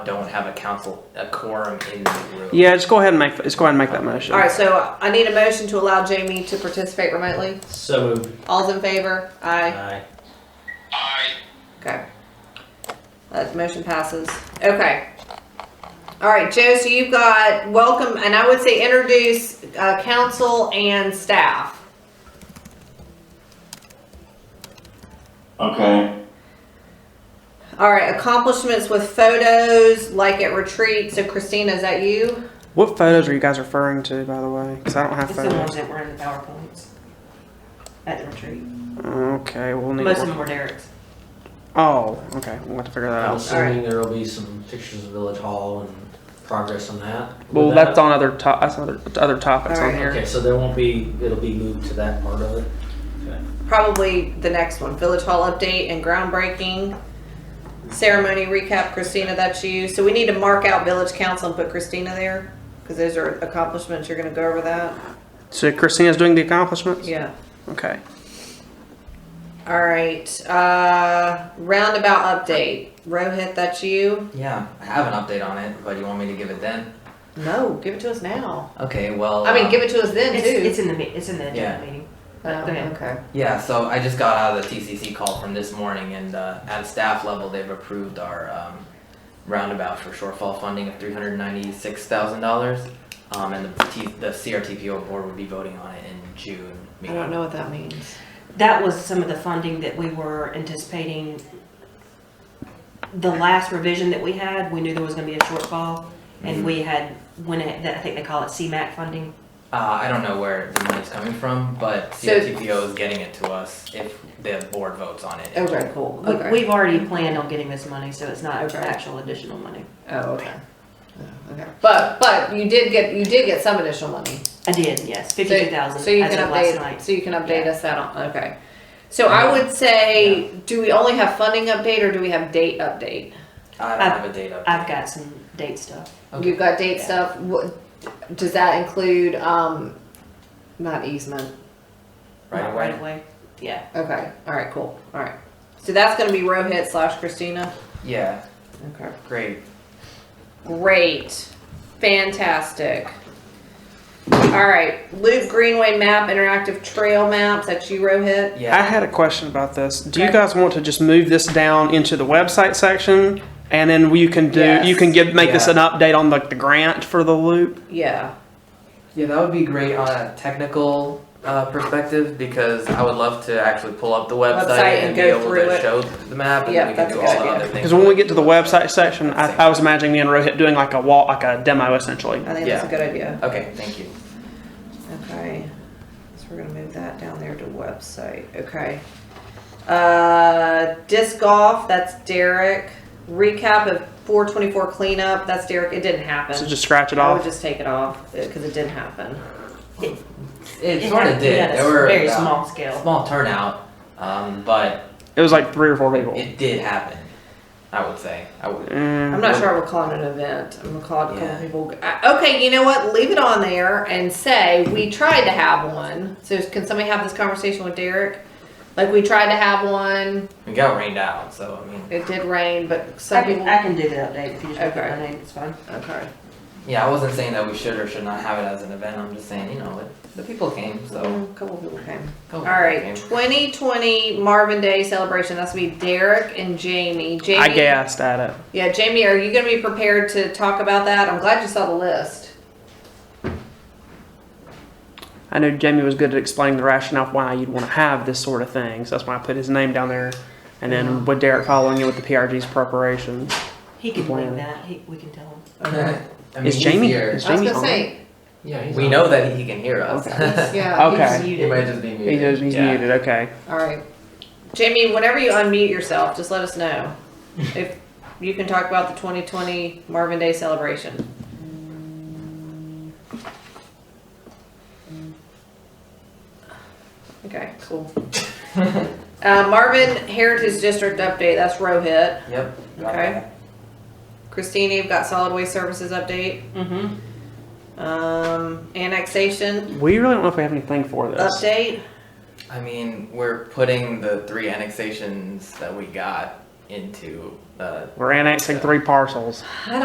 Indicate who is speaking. Speaker 1: don't have a council, a quorum in the room.
Speaker 2: Yeah, just go ahead and make just go ahead and make that motion.
Speaker 3: All right, so I need a motion to allow Jamie to participate remotely.
Speaker 1: So moved.
Speaker 3: All's in favor?
Speaker 4: uh,
Speaker 3: Aye.
Speaker 1: Aye.
Speaker 3: Okay. That motion passes. Okay. All right, Joe, so you've got welcome, and I would say introduce uh, council and staff.
Speaker 5: Okay.
Speaker 3: All right, accomplishments with photos, like at retreat. So Christina, is that you?
Speaker 2: What photos are you guys referring to, by the way? Because I don't have
Speaker 6: It's the ones
Speaker 2: photos.
Speaker 6: that were in the PowerPoints at the retreat.
Speaker 2: Okay, we'll need.
Speaker 6: Most of
Speaker 2: To
Speaker 6: them were Derek's.
Speaker 2: oh, okay, we'll have to figure that
Speaker 4: I'm
Speaker 2: out.
Speaker 4: assuming there will be some pictures of Village Hall and progress on that.
Speaker 2: Well,
Speaker 4: With
Speaker 2: that's
Speaker 4: that-
Speaker 2: on other to- that's other other topics
Speaker 3: All
Speaker 2: on
Speaker 3: right.
Speaker 2: here.
Speaker 4: Okay, so there won't be, it'll be moved to that part of it.
Speaker 3: Probably the next one, Village Hall update and groundbreaking. Ceremony recap, Christina, that's you. So we need to mark out Village Council and put Christina there, because those are accomplishments. You're gonna go over that?
Speaker 2: So Christina's doing the accomplishments.
Speaker 3: Yeah.
Speaker 2: Okay.
Speaker 3: All right, uh, roundabout update. Rohit, that's you?
Speaker 1: Yeah, I have an update on it, but you want me to give it then?
Speaker 3: No, give it to us now.
Speaker 1: Okay, well.
Speaker 3: I mean,
Speaker 1: uh,
Speaker 3: give it to us then
Speaker 6: It's, it's
Speaker 3: too.
Speaker 6: in the, me- it's in the
Speaker 1: Yeah.
Speaker 6: agenda meeting.
Speaker 3: Oh, okay.
Speaker 1: Yeah, so I just got out of the TCC call from this morning, and uh, at staff level, they've approved our um, roundabout for shortfall funding of three hundred ninety-six thousand dollars, um, and the, T- the CRTPO board will be voting on it in June.
Speaker 3: I don't know what that means.
Speaker 6: That was some of the funding that we were anticipating. The last revision that we had, we knew there was gonna be a shortfall, and we had, when it, that- I think they call it CMAC funding.
Speaker 1: Uh, I don't know where the money's coming from, but
Speaker 3: So-
Speaker 1: CRTPO is getting it to us if the board votes on it.
Speaker 3: Okay, cool.
Speaker 6: We-
Speaker 3: Okay.
Speaker 6: We've already planned on getting this money, so it's not
Speaker 3: Okay.
Speaker 6: actual additional money.
Speaker 3: Oh, okay. Oh, Okay. But, but you did get, you did get some additional money.
Speaker 6: I did, yes,
Speaker 3: So-
Speaker 6: fifty-two thousand
Speaker 3: So you
Speaker 6: as
Speaker 3: can
Speaker 6: of last
Speaker 3: update,
Speaker 6: night.
Speaker 3: so you can update
Speaker 6: Yeah.
Speaker 3: us that on, okay. So I would say, do we only have funding update or do we have date update?
Speaker 1: I don't
Speaker 6: I've-
Speaker 1: have a date up.
Speaker 6: I've got some date stuff.
Speaker 3: You've got date
Speaker 6: Yeah.
Speaker 3: stuff, what, does that include, um, not easement?
Speaker 1: Right
Speaker 6: Not
Speaker 1: away.
Speaker 6: Right away, yeah.
Speaker 3: Okay, alright, cool, alright. So that's gonna be Rohit slash Christina?
Speaker 1: Yeah,
Speaker 3: Okay.
Speaker 1: great.
Speaker 3: Great. Fantastic. All right. Luke Greenway map, interactive trail maps. That's you, Rohit.
Speaker 2: I
Speaker 1: Yeah,
Speaker 2: had a question about this. Do you
Speaker 3: Okay.
Speaker 2: guys want to just move this down into the website section, and then you can do you can give make this
Speaker 1: Yeah.
Speaker 2: an update on like the grant for the loop?
Speaker 3: Yeah.
Speaker 1: yeah, that would be great on a technical uh, perspective because I would love to actually pull up the website,
Speaker 3: Website and
Speaker 1: be
Speaker 3: go
Speaker 1: able
Speaker 3: through
Speaker 1: to
Speaker 3: it.
Speaker 1: show the map, and
Speaker 3: Yeah,
Speaker 1: we can
Speaker 3: that's
Speaker 1: do
Speaker 3: a
Speaker 1: all
Speaker 3: good
Speaker 1: the
Speaker 3: idea.
Speaker 1: other things.
Speaker 2: Because when we get to the website section, I, I was imagining me and Rohit doing like a wall, like a demo essentially.
Speaker 3: I think that's a good idea.
Speaker 1: Okay, thank you.
Speaker 3: Okay. So we're going to move that down there to website. Okay. Uh, disc golf. That's Derek. Recap of 424 cleanup. That's Derek. It didn't happen.
Speaker 2: So just scratch it
Speaker 3: I would
Speaker 2: off. Mm-hmm.
Speaker 3: just take it off because it didn't happen.
Speaker 1: It sort of did.
Speaker 6: At a
Speaker 1: There were
Speaker 6: very
Speaker 1: about-
Speaker 6: small scale.
Speaker 1: small turnout, um, but
Speaker 2: It was like three or four people.
Speaker 1: it did happen. I would say. I would.
Speaker 2: Mm.
Speaker 3: I'm not sure I would call it an event. I'm gonna call it a couple
Speaker 1: Yeah.
Speaker 3: people. I- Okay, you know what? Leave it on there and say we tried to have one. So can somebody have this conversation with Derek? Like we tried to have one.
Speaker 1: It got rained out, so I mean,
Speaker 3: It did rain, but
Speaker 6: I
Speaker 3: some
Speaker 6: can,
Speaker 3: people.
Speaker 6: I can do the update if you just look
Speaker 3: Okay.
Speaker 6: at my name, it's fine.
Speaker 3: Okay.
Speaker 1: yeah, I wasn't saying that we should or should not have it as an event. I'm just saying, you know, it, the people came, so.
Speaker 3: A couple people came.
Speaker 1: go
Speaker 3: Mm-hmm. All
Speaker 1: with
Speaker 3: right,
Speaker 1: the
Speaker 3: 2020 Marvin Day celebration. That's gonna be Derek and Jamie. Jamie.
Speaker 2: I gassed at it.
Speaker 3: Yeah, Jamie, are you gonna be prepared to talk about that? I'm glad you saw the list.
Speaker 2: I knew Jamie was good at explaining the rationale for why you'd want to have this sort of thing, so that's why I put his name down there. And
Speaker 3: Uh-huh.
Speaker 2: then with Derek following it with the PRG's preparation.
Speaker 6: He can
Speaker 2: Plan.
Speaker 6: leave that, he, we can tell him.
Speaker 1: game. I mean,
Speaker 2: Is
Speaker 1: he's
Speaker 2: Jamie-
Speaker 1: here.
Speaker 2: is
Speaker 3: I was
Speaker 2: Jamie's
Speaker 3: gonna
Speaker 2: on
Speaker 3: say.
Speaker 4: Yeah, he's
Speaker 1: We
Speaker 4: on.
Speaker 1: know that he can hear us.
Speaker 3: Yeah.
Speaker 2: Okay.
Speaker 6: He's
Speaker 1: he might
Speaker 6: muted.
Speaker 1: just be
Speaker 2: He's,
Speaker 1: muted.
Speaker 2: he's
Speaker 1: yeah.
Speaker 2: muted, okay.
Speaker 3: All right. Jamie, whenever you unmute yourself, just let us know if you can talk about the 2020 Marvin Day celebration. Okay, cool. Uh, Marvin Heritage District update, that's Rohit.
Speaker 1: Yep. got
Speaker 3: Okay.
Speaker 1: that.
Speaker 3: Christina, you've got solid waste services update.
Speaker 6: Mm-hmm.
Speaker 3: Um, annexation
Speaker 2: We really don't know if we have anything for this.
Speaker 3: update.
Speaker 1: I mean, we're putting the three annexations that we got into uh,
Speaker 2: We're annexing three parcels.